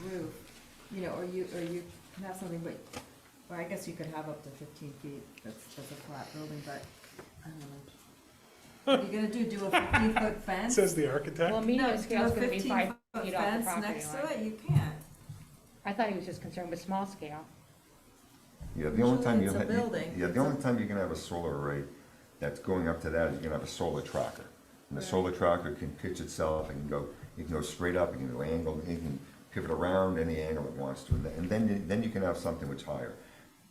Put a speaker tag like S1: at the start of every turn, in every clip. S1: roof, you know, or you, or you can have something, but, or I guess you could have up to fifteen feet, that's, that's a flat building, but, I don't know. What You're gonna do, do a fifteen foot fence?
S2: Says the
S3: Well,
S2: architect.
S3: medium
S1: No,
S3: scale is
S1: do a
S3: gonna be five
S1: 15-foot
S3: feet off the
S1: fence
S3: property
S1: Next to
S3: line.
S1: it, you can't.
S3: I thought he was just concerned with small scale.
S4: Yeah, the only time
S1: Usually it's
S4: you'll,
S1: a
S4: ha- you-
S1: building.
S4: yeah, the only time you're gonna have a solar array that's going up to that is you're gonna have a solar tracker. And the solar tracker can pitch itself, it can go, it can go straight up, it can go angled, it can pivot around any angle it wants to. And then- And then, you- then you can have something which higher.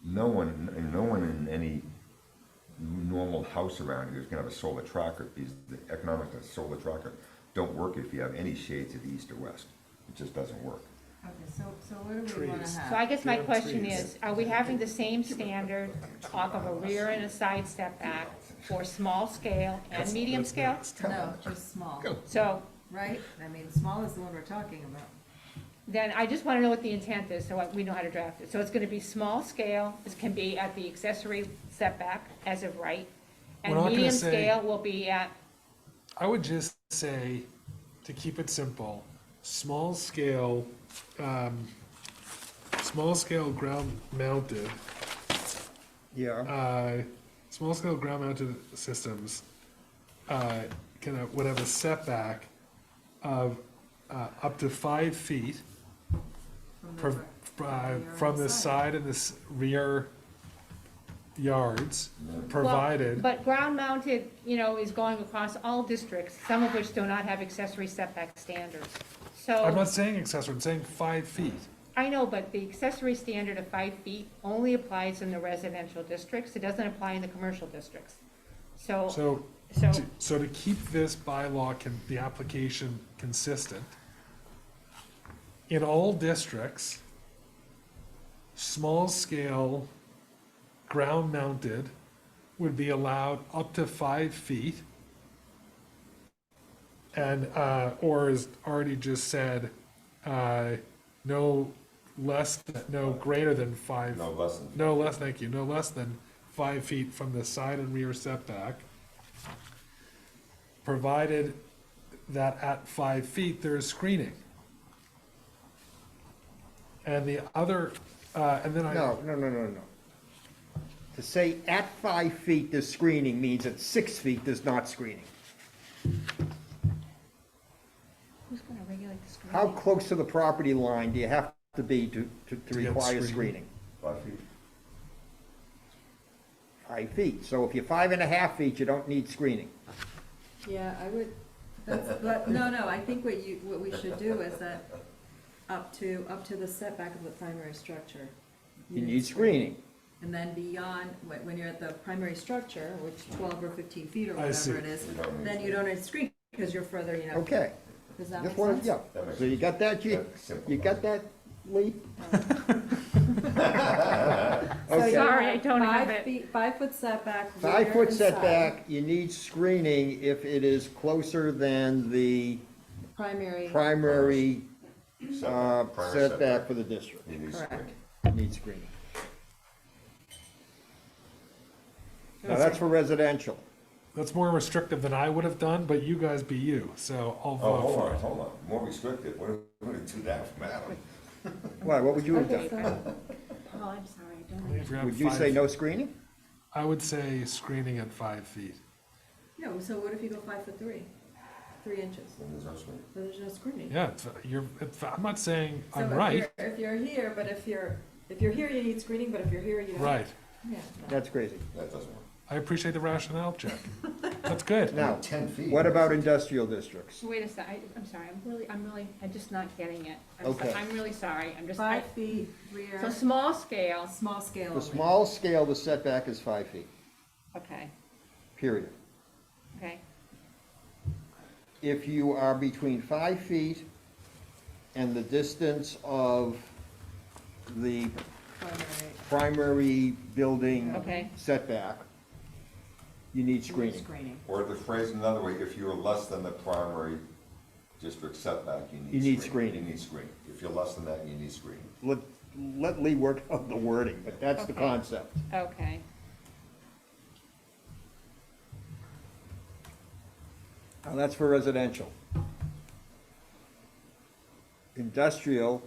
S4: No one, and no one in any normal house around here is gonna have a solar tracker, because the economics of a solar tracker don't work if you have any shade to the east or west. It just doesn't work.
S1: Okay, so, so what do we wanna
S2: Trees.
S3: So I
S1: have?
S3: guess my
S2: Yeah,
S3: question
S2: trees.
S3: is, are we having the same standard off of a rear and a side setback for small scale and
S2: That's-
S3: medium
S2: that's
S3: scale?
S2: next.
S1: No, just small,
S3: So
S1: right? I mean, small is the one we're talking about.
S3: then I just wanna know what the intent is, so I- we know how to draft it. So it's gonna be small scale, it can be at the accessory setback as of right.
S2: We're not
S3: And
S2: gonna
S3: medium
S2: say-
S3: scale will be at,
S2: I would just say, to keep it simple, small scale, um, small scale ground mounted,
S4: Yeah.
S2: uh, small scale ground mounted systems, uh, can have, would have a setback of, uh, up to five feet
S1: from the
S2: pro-
S1: front.
S2: uh,
S1: Rear
S2: from
S1: and
S2: the
S1: side.
S2: side and the s- rear yards, provided.
S3: But ground mounted, you know, is going across all districts, some of which do not have accessory setback standards.
S2: I'm
S3: So,
S2: not saying accessory, I'm saying five feet.
S3: I know, but the accessory standard of five feet only applies in the residential districts, it doesn't apply in the commercial districts. So,
S2: So,
S3: so,
S2: to- so to keep this bylaw can, the application consistent, in all districts, small scale, ground mounted would be allowed up to five feet. And, uh, or as already just said, uh, no less, than- no greater than five
S4: No, less than
S2: no less, thank you, no less than five feet from the side and rear setback. Provided that at five feet, there is screening. And the other, uh, and then I,
S5: No, no, no, no, no. To say at five feet there's screening means at six feet there's not screening.
S3: who's gonna regulate the screening?
S5: How close to the property line do you have to be to, to, to
S2: get
S5: require
S2: screening.
S5: screening?
S4: five feet.
S5: Five feet. So if you're five and a half feet, you don't need screening.
S1: Yeah, I would, that's, but, no, no, I think what you, what we should do is that up to, up to the setback of the primary structure.
S5: You need screening.
S1: And then beyond, when, when you're at the primary structure, which twelve or fifteen feet or
S2: I see.
S1: whatever it is,
S4: You don't need
S1: then you
S4: to.
S1: don't need to screen, because you're further, you know.
S5: Okay.
S1: Does that make
S5: Just wanna-
S1: sense?
S5: yeah.
S4: That makes
S5: So you
S4: sense.
S5: got that, you,
S4: That simple.
S5: you got that, Lee?
S1: So you
S3: Sorry, I don't have
S1: five
S3: it.
S1: feet- Five foot setback.
S5: Five
S1: rear
S5: foot
S1: and
S5: setback, you need screening if it is closer than the
S1: side. Primary,
S5: primary, uh,
S4: Setback, prior
S5: setback for the district.
S4: You need
S1: Correct.
S4: screening.
S5: Need screening. Now, that's for residential.
S2: that's more restrictive than I would have done, but you guys be you, so I'll
S4: Oh,
S2: vote
S4: hold
S2: for
S4: on,
S2: it.
S4: hold on, more restrictive, what what did do that from Adam?
S5: Why, what would you have
S3: Okay,
S5: done?
S3: Paul, Oh, I'm sorry, I don't.
S2: If you're at
S5: Would you
S2: five-
S5: say no screening?
S2: I would say screening at five feet.
S1: no, so what if you go five foot three, three inches,
S4: Then there's no screening.
S1: so there's no screening?
S2: Yeah, it's- you're, it's- I'm not saying
S1: So
S2: I'm
S1: if
S2: right,
S1: you're- If you're here, but if you're, if you're here, you need screening, but if you're here, you don't.
S2: right.
S1: Yeah.
S5: That's crazy.
S4: That doesn't work.
S2: I appreciate the rationale, Jack. That's good.
S5: Now,
S4: Ten feet.
S5: what about industrial districts?
S3: Wait a sec, I- I'm sorry, I'm really, I'm really, I'm just not getting it. I'm so-
S5: Okay.
S3: I'm really sorry, I'm just, I-
S1: Five feet
S3: so
S1: rear,
S3: small scale,
S1: small scale.
S5: For
S1: only.
S5: small scale, the setback is five feet,
S3: okay,
S5: period.
S3: okay.
S5: If you are between five feet and the distance of the
S1: Primary.
S5: primary building
S3: Okay.
S5: setback, you need screening.
S1: Screening.
S4: Or to phrase it another way, if you're less than the primary district setback, you need.
S5: You need
S4: You
S5: screening.
S4: need screening, if you're less than that, you need screening.
S5: Let, let Lee work on the wording, but that's the
S3: Okay.
S5: concept.
S3: Okay.
S5: Now, that's for residential. Industrial,